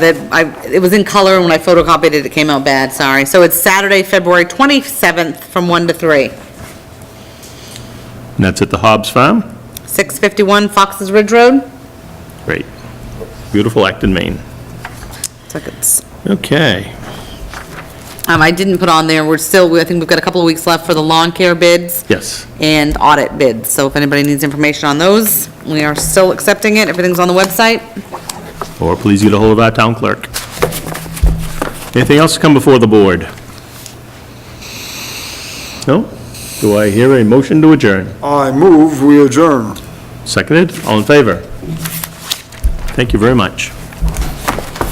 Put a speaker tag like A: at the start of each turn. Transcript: A: that I, it was in color, and when I photocopied it, it came out bad, sorry. So it's Saturday, February 27th, from 1 to 3,
B: And that's at the Hobbs Farm?
A: 651 Fox's Ridge Road.
B: Great. Beautiful Acton, Maine.
A: So it's-
B: Okay.
A: Um, I didn't put on there, we're still, I think we've got a couple of weeks left for the lawn care bids.
B: Yes.
A: And audit bids, so if anybody needs information on those, we are still accepting it, everything's on the website.
B: Or please get a hold of our town clerk. Anything else to come before the board? No? Do I hear a motion to adjourn?
C: I move, we adjourn.
B: Seconded? All in favor? Thank you very much.